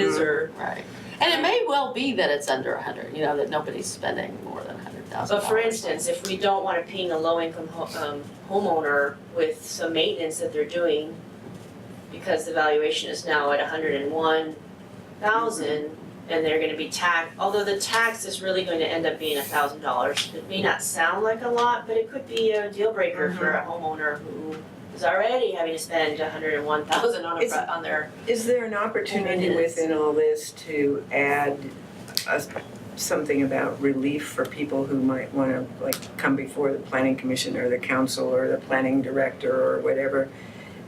or, Right. And it may well be that it's under a hundred, you know, that nobody's spending more than a hundred thousand but dollars. for instance, if we don't wanna ping a low-income ho- um, homeowner with some maintenance that they're doing, because the valuation is now at hundred and one thousand, and they're gonna be taxed, although the tax is really going to end up being thousand dollars. It may not sound like a lot, but it could be a deal breaker for Mm-hmm. a homeowner who is already having to spend hundred and one thousand on a, It's- pro- on their, Is there an opportunity It is. within all this to add a- something about relief for people who might want to, like, come before the planning commission or the council or the planning director or whatever?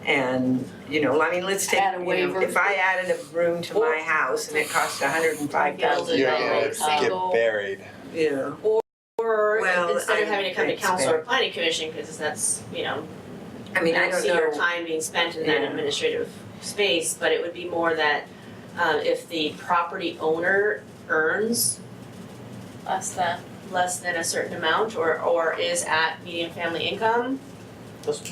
And, you know, I mean, let's take, Add a you know, waiver. if I added a room to my house and it cost a hundred and five thousand Yeah, You're yeah. dollars, gonna get single- buried. you know, or Well, instead of I- having to come to it's council or fair. planning commission, cause that's, you know, I mean, I don't don't see your know, time being spent in that Yeah. administrative space, but it would be more that um if the property owner earns less than. less than a certain amount or or is at median family income,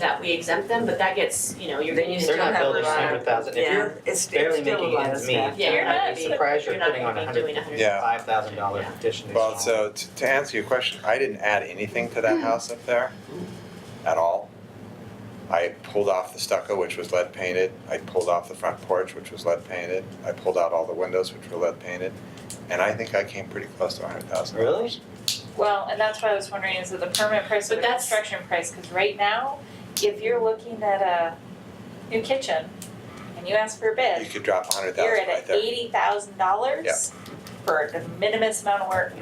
that we exempt them, but that gets, you know, you're Then gonna you use still They're a don't have not building a a lot hundred thousand, if yeah, you're it's, it's barely still a making lot of ends meet, stuff. Yeah, you're not I'd be gonna be- surprised you're you're not putting on gonna a be hundred doing a hundred. Yeah. five thousand dollar Yeah. addition. Well, uh, so to, to answer your question, I didn't add anything to Hmm. that house up there at all. I pulled off the stucco, which was lead painted. I pulled off the front porch, which was lead painted. I pulled out all the windows, which were lead painted. And I think I came pretty close to a hundred thousand. Really? Well, and that's what I was wondering, is it the permanent price or But the that's- construction price? Because right now, if you're looking at a new kitchen and you ask for a You bid, could drop a hundred you're thousand right at there. eighty thousand dollars for the minimum amount of work.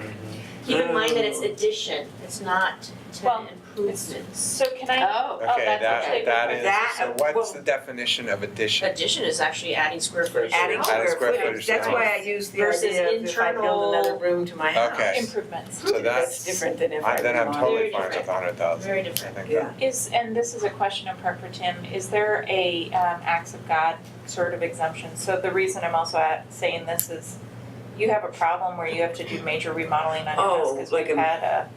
Keep in mind that it's addition, it's not Well, tenant improvements. So can I, Oh, Oh, Okay, that's that, okay. that That- is, so well- what's the definition of addition? Addition is actually adding square footage to Adding the Adding square square footage, footage that's to why I house. use the Versus idea of if I build another internal- room to my house. Okay. improvements So That's that's, different than if I. I- then I'm remodeled. totally Very fine with different. a hundred thousand. Very I different. think Yeah. that, is, and this is a question in part for Tim, is there a um acts of God sort of exemption? So the reason I'm also at saying this is you have a problem where you have to do major remodeling on your house Oh, because like we've a- had a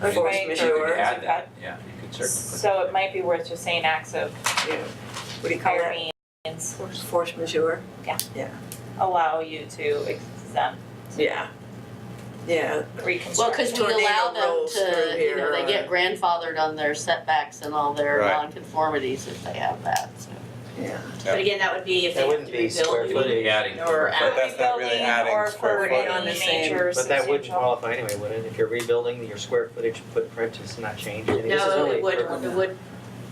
Force Right, You Sure. could majeure, add that, yeah, you could certainly So it might be worth just saying acts of you know, what do you call that? Halloween's Force majeure. allow you to exempt Yeah. Yeah, well, reconstruction. cause we allow Tornado them rolls to, through you know, here. they get grandfathered on their setbacks and all their Right. nonconformities if they have that, so. yeah. But again, that would be if they have to That wouldn't be rebuild. square put it. footage, Adding. Or But that's not really Rebuilding adding or square for footage. any On the same- major but that wouldn't substantial- qualify anyway, would it? If you're rebuilding, your square footage footprint is not changing. I mean, this is No, only it would, for- it would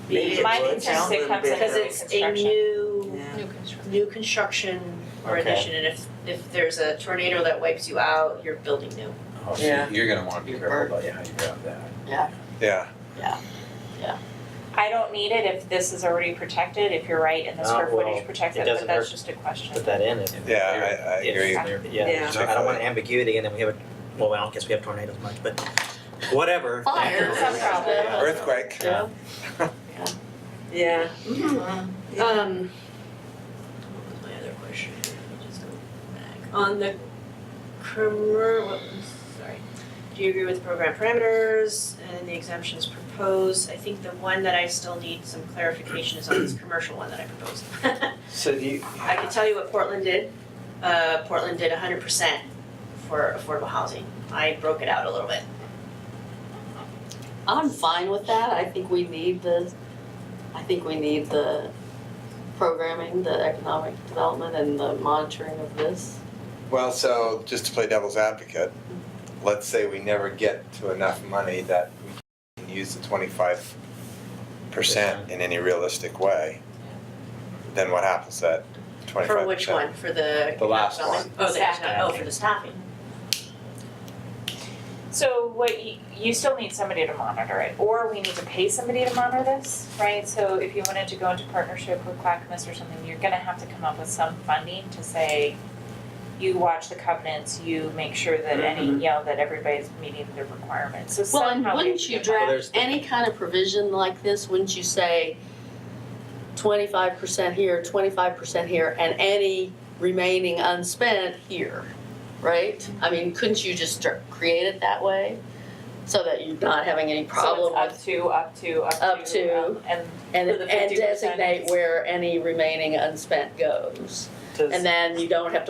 Maybe be, it My would concern sound is it a little comes bit because under it's a construction. new, Yeah. new construction or Okay. addition, and if, if there's a tornado that wipes you out, you're building new. Oh, so Yeah. you're gonna wanna be Your careful about how you grab that. yeah, I don't need it if this is already protected, if you're right and the Uh, square well, footage protects it it, but doesn't that's hurt. just a question. Put that in if. yeah, I, I if- agree. Yeah, Yeah. I don't want ambiguity and then we have, a well, I don't guess we have tornadoes much, but whatever. Fire, some problem. Earthquake. Yeah. Yeah. Um. What was my other question? Let me just go back. On the commer, what was, sorry. Do you agree with program parameters and the exemptions proposed? I think the one that I still need some clarification is on this commercial one that I proposed. So do you, I can tell you what Portland did. Uh, Portland did hundred percent for affordable housing. I broke it out a little bit. I'm fine with that, I think we need the, I think we need the programming, the economic development and the monitoring of this. Well, so just to play devil's advocate, let's say we never get to enough money that we can use the twenty-five percent in any realistic way. Then what happens at twenty-five percent? For which one? For the. The last economic development? Oh, the Staffing. economic- oh, for the staffing. So what you, you still need somebody to monitor it, or we need to pay somebody to monitor this, right? So if you wanted to go into partnership with Clackamas or something, you're gonna have to come up with some funding to say, you watch the covenants, you make sure that any, you know, that everybody's meeting their requirements, so Well, and somehow we wouldn't you have to come up- draft any kind of provision like this, wouldn't you say twenty-five percent here, twenty-five percent here, and any remaining unspent here, right? I mean, couldn't you just dr- create it that way, so that you're not having any problem So with, it's up to, up to, Up up to. to, um, and and for the and 50%. designate where any remaining unspent goes? does- And then you don't have to